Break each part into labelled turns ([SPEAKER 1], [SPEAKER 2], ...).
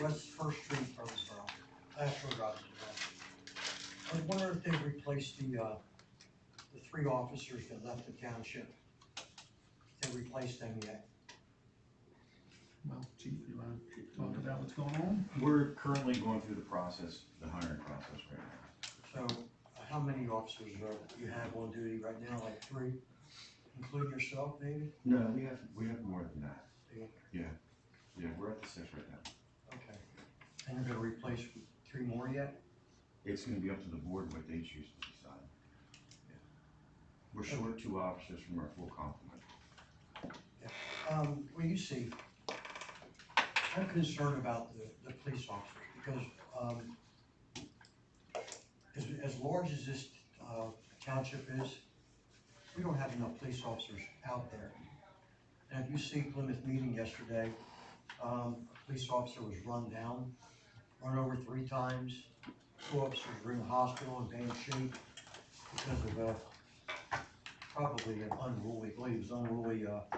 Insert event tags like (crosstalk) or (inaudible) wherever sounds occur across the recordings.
[SPEAKER 1] West First Street, Burnsboro, Astro Drive. Burnsboro. I was wondering if they replaced the, uh, the three officers that left the township. If They replaced them yet.
[SPEAKER 2] Well, chief, you wanna talk about what's going on?
[SPEAKER 3] We're currently going through the process, the hiring process right now.
[SPEAKER 1] So uh, how many officers are, you have on duty right now, like three, including yourself maybe?
[SPEAKER 3] No, we have, we have more than that.
[SPEAKER 1] Yeah.
[SPEAKER 3] Yeah, yeah, we're at the six right now.
[SPEAKER 1] Okay. And you're gonna replace three more yet?
[SPEAKER 3] It's gonna be up to the board what they choose to decide. We're short two officers from our full complement.
[SPEAKER 1] Um, well, you see, I'm concerned about the, the police officers, because, um, as, as large as this, uh, township is, we don't have enough police officers out there. And if you see Plymouth meeting yesterday, um, a police officer was run down, run over three times. Two officers were in the hospital in bad shape because of, uh, probably an unruly, I believe it was unruly, uh,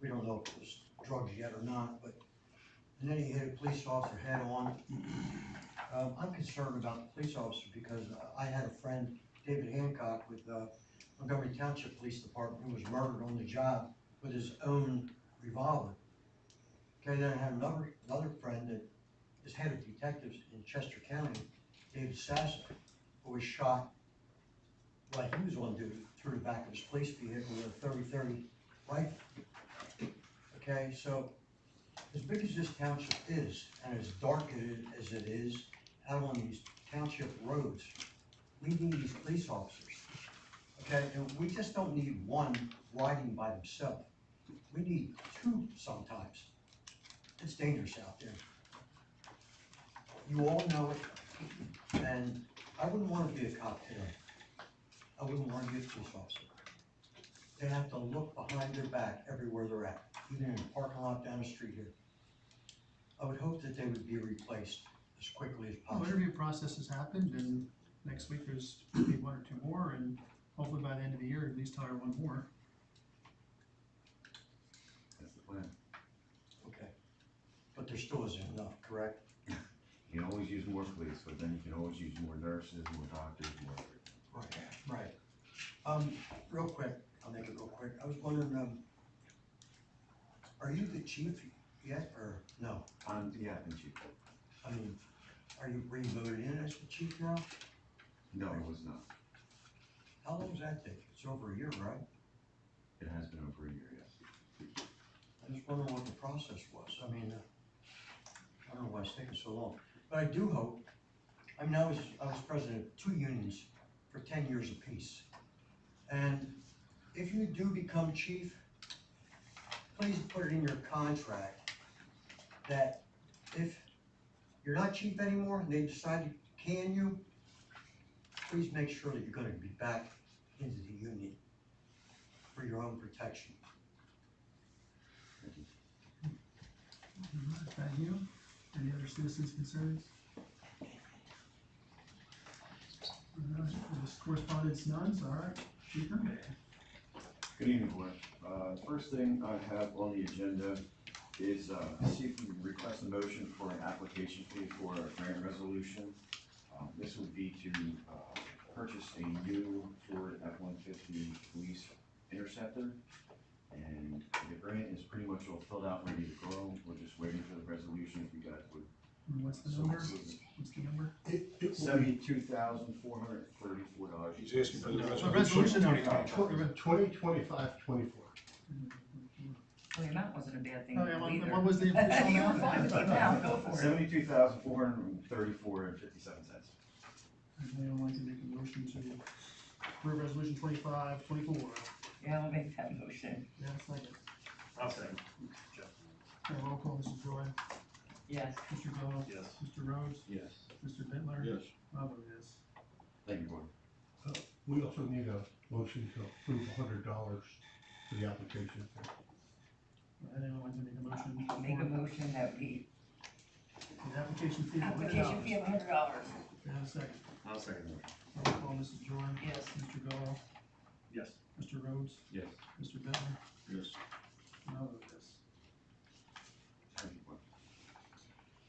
[SPEAKER 1] we don't know if it was drugs yet or not, but, and then he hit a police officer head on. Um, I'm concerned about the police officer because I had a friend, David Hancock, with, uh, Montgomery Township Police Department, who was murdered on the job with his own revolver. Okay, then I had another, another friend that is head of detectives in Chester County, David Sasso, who was shot while he was on duty through the back of his police vehicle with a thirty-thirty rifle. Okay, so as big as this township is, and as dark it- as it is, out on these township roads, we need these police officers. Okay, and we just don't need one riding by himself. We need two sometimes. It's dangerous out there. You all know it, and I wouldn't wanna be a cop today. I wouldn't wanna be a police officer. They have to look behind their back everywhere they're at even in the parking lot down the street here. I would hope that they would be replaced as quickly as
[SPEAKER 2] Well,
[SPEAKER 1] possible.
[SPEAKER 2] Interview process has happened, and next week there's maybe one or two more, and hopefully by the end of the year, at least hire one more.
[SPEAKER 3] That's the plan.
[SPEAKER 1] Okay. But there still isn't enough, correct?
[SPEAKER 3] You can always use more police, but then you can always use more nurses, more doctors, more.
[SPEAKER 1] Right. Right. Um, real quick, I'll make it real quick. I was wondering, um, are you the chief yet, or no?
[SPEAKER 3] Um, yeah, and chief.
[SPEAKER 1] I mean, are you re-voted in as the chief now?
[SPEAKER 3] No, it was not.
[SPEAKER 1] How long does that take? It's over a year, right?
[SPEAKER 3] It has been over a year, yes.
[SPEAKER 1] I just wonder what the process was, I mean, uh, I don't know why it's taking so long, but I do hope, I mean, I was, I was president of two unions for ten years apiece. And if you do become chief, please put it in your contract that if you're not chief anymore and they decide to can you, please make sure that you're gonna be back into the union for your own protection.
[SPEAKER 3] Thank you.
[SPEAKER 2] Alright, Thank you. Any other citizens' concerns? Alright, there's Correspondence none, so alright, chief,
[SPEAKER 3] Good evening, board. Uh, First thing I have on the agenda is uh, see if we can request a motion for an application fee for a grant resolution. Um, This would be to uh, purchase a new Ford F-150 police interceptor. And the grant is pretty much all filled out, ready to go. We're just waiting for the resolution if you guys would.
[SPEAKER 2] and what's the
[SPEAKER 3] so
[SPEAKER 2] number?
[SPEAKER 3] approve.
[SPEAKER 2] What's the number?
[SPEAKER 4] It, it will be
[SPEAKER 3] Seventy-two thousand, four hundred and thirty-four dollars.
[SPEAKER 4] He's asking for the
[SPEAKER 2] A resolution number.
[SPEAKER 4] tw- twenty, twenty-five, twenty-four.
[SPEAKER 5] Well, the amount Oh, wasn't a bad thing
[SPEAKER 2] Oh, yeah,
[SPEAKER 5] either.
[SPEAKER 2] what- what was
[SPEAKER 5] (laughs)
[SPEAKER 2] the official
[SPEAKER 5] You were
[SPEAKER 2] amount?
[SPEAKER 5] fine with the amount, go for it.
[SPEAKER 3] Seventy-two thousand, four hundred and thirty-four and fifty-seven cents.
[SPEAKER 2] Anyone like to make a motion to approve resolution twenty-five, twenty-four?
[SPEAKER 5] Yeah, I'll make that motion,
[SPEAKER 2] Yeah, second.
[SPEAKER 6] I'll second.
[SPEAKER 2] Okay, roll call, Mrs. Joy,
[SPEAKER 5] yes.
[SPEAKER 2] Mr. Gallow,
[SPEAKER 6] Yes.
[SPEAKER 2] Mr. Rhodes,
[SPEAKER 3] Yes.
[SPEAKER 2] Mr. Bitler.
[SPEAKER 4] Yes.
[SPEAKER 2] I vote yes.
[SPEAKER 3] Thank you, board.
[SPEAKER 4] We also need a motion to approve a hundred dollars for the application. fee.
[SPEAKER 2] Anyone want to make a motion?
[SPEAKER 5] I'll Make a
[SPEAKER 2] for
[SPEAKER 5] motion that we, uh,
[SPEAKER 2] The application fee. of
[SPEAKER 5] application
[SPEAKER 2] $100?
[SPEAKER 5] fee of a hundred dollars,
[SPEAKER 2] Do I have a second?
[SPEAKER 3] I'll second that.
[SPEAKER 2] Roll call, Mrs. Joy,
[SPEAKER 5] yes.
[SPEAKER 2] Mr. Gallow,
[SPEAKER 6] Yes.
[SPEAKER 2] Mr. Rhodes,
[SPEAKER 3] Yes.
[SPEAKER 2] Mr. Bitler.
[SPEAKER 4] Yes.
[SPEAKER 2] I vote yes.